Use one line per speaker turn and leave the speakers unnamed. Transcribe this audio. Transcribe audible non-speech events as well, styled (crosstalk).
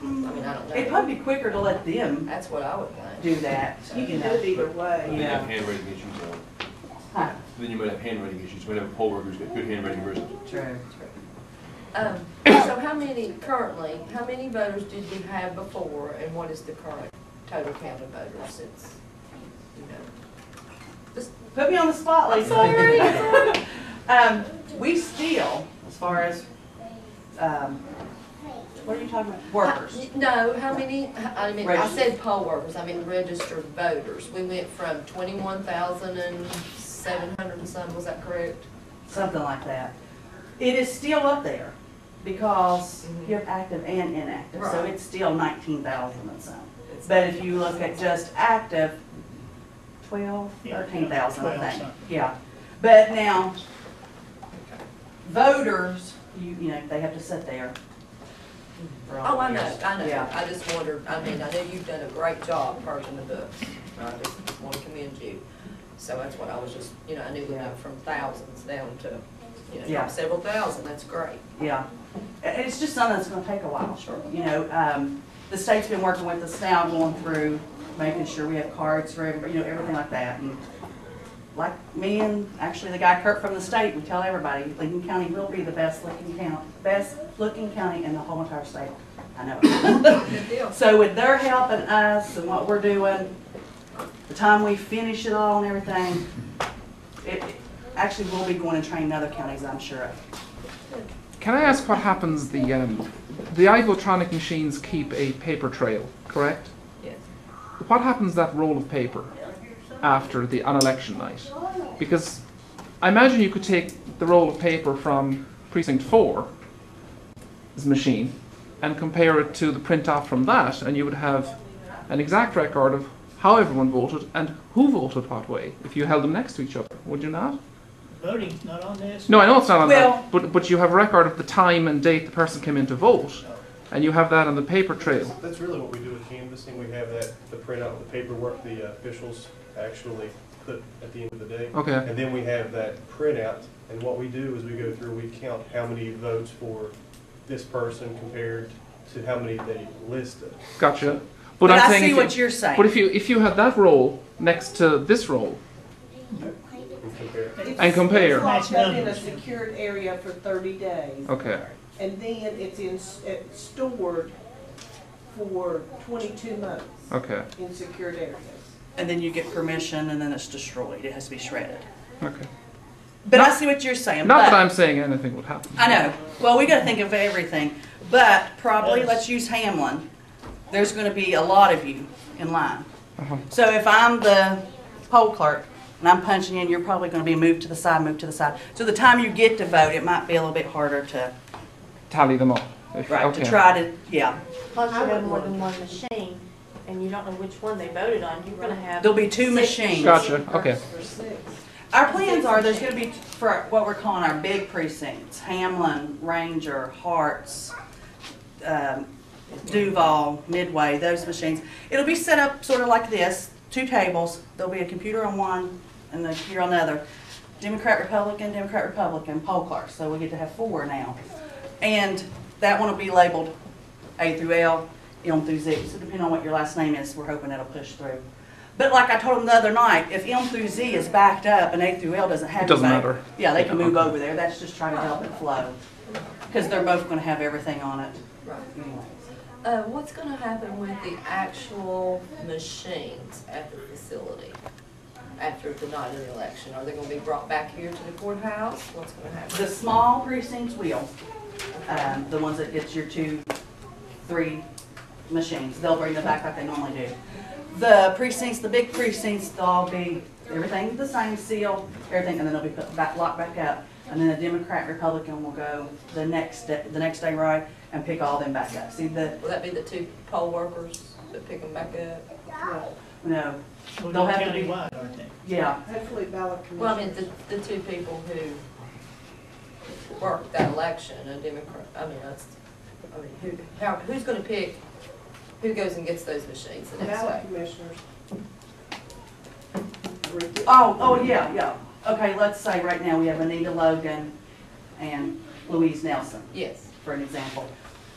not
It'd
done.
Mm, probably be quicker to let them
That's what I would think.
do that.
You can do it either way.
Then you have
Yeah.
handwriting issues though.
Huh.
Then you might have handwriting issues, you might have a poll worker who's got good handwriting versus.
True.
Um, so how many currently, how many voters did you have before and what is the current total count of voters since, you know?
Put me on the spot, Lisa.
Sorry.
(laughs) Um, we still, as far as, um, what are you talking about? Workers.
No, how many, I mean, I said poll workers, I mean registered voters. We went from twenty-one thousand and seven hundred and some, was that correct?
something like that. It is still up there because
Mhm.
you have active and inactive, so
Right.
it's still nineteen thousand and some.
It's-
But if you look at just active, twelve, thirteen thousand, I think, yeah. But now, voters, you, you know, they have to sit there. for all
Oh, I know,
years.
I know.
Yeah.
I just wondered, I mean, I know you've done a great job purging the books. I just want to commend you. So that's what I was just, you know, I knew we went from thousands down to, you know,
Yeah.
several thousand. That's great.
Yeah, And it's just something that's gonna take a while.
Sure.
You know, um, the state's been working with us now, going through, making sure we have cards for everybody, you know, everything like that. And Like me and actually the guy Kurt from the state, we tell everybody, Lincoln County will be the best looking county, best looking county in the whole entire state. I know.
Good deal.
So with their helping us and what we're doing, the time we finish it all and everything, it, it- actually we'll be going and training other counties, I'm sure of.
Can I ask what happens? The um, the Ivotronic machines keep a paper trail, correct?
Yes.
What happens to that roll of paper after the on election night? Because I imagine you could take the roll of paper from precinct four's machine and compare it to the print off from that, and you would have an exact record of how everyone voted and who voted what way if you held them next to each other, would you not?
Voting's not on this.
No, I know it's not on
Well-
that, but but you have a record of the time and date the person came in to vote, and you have that on the paper trail.
That's really what we do with canvassing, we have that, the printout, the paperwork the officials actually put at the end of the day.
Okay.
And then we have that printout, and what we do is we go through, we count how many votes for this person compared to how many they listed.
Gotcha. But,
But
I'm
I
saying
see
if
what
you,
you're saying.
But if you if you had that roll next to this roll,
and compare.
And compare.
It's locked up in a secured area for thirty days,
okay,
and then it's in, it's stored for twenty-two months
okay,
in secured areas.
And then you get permission and then it's destroyed. It has to be shredded.
okay.
But I see what you're saying.
Not
but
that I'm saying anything would happen.
I know. Well, we got to think of everything. But probably,
Yes.
let's use Hamlin. There's going to be a lot of you in line.
Uh-huh.
So if I'm the poll clerk and I'm punching in, you're probably going to be moved to the side, moved to the side. So the time you get to vote, it might be a little bit harder to,
Tally them up. If-
right,
okay.
to try to, yeah.
Plus you have more than one machine, and you don't know which one they voted on, you're gonna have.
There'll be two
six
machines.
Gotcha, okay.
Or six.
Our plans are, there's gonna be, for what we're calling our big precincts, Hamlin, Ranger, Hearts, um, Duval, Midway, those machines. It'll be set up sort of like this, two tables, there'll be a computer on one and a computer on the other. Democrat, Republican, Democrat, Republican, poll clerk, so we get to have four now. And that one will be labeled A through L, M through Z, so depending on what your last name is, we're hoping that'll push through. But like I told them the other night, if M through Z is backed up and A through L doesn't have.
It doesn't
anybody,
matter.
Yeah, they can
Yeah,
move
okay.
over there, that's just trying to help it flow, because they're both gonna have everything on it
Right.
anyway.
Uh, what's gonna happen with the actual machines at the facility after the night of the election? Are they gonna be brought back here to the courthouse? What's gonna happen?
The small precincts will, um, the ones that gets your two, three machines, they'll bring them back like they normally do. The precincts, the big precincts, they'll all be, everything the same seal, everything, and then they'll be put back, locked back up. And then the Democrat, Republican will go the next, day- the next day, right, and pick all them back up. See the,
Will that be the two poll workers that pick them back up?
no, They'll
Well, they're
have to be-
countywide, aren't they?
yeah,
Hopefully ballot commission.
Well, I mean, the, the two people who worked that election, a Democrat, I mean, that's, I mean, who, how, who's gonna pick, who goes and gets those machines the next
Ballot
day?
commissioners.
Oh, oh, yeah, yeah. Okay, let's say right now we have Anita Logan and Louise Nelson.
Yes,
for an example.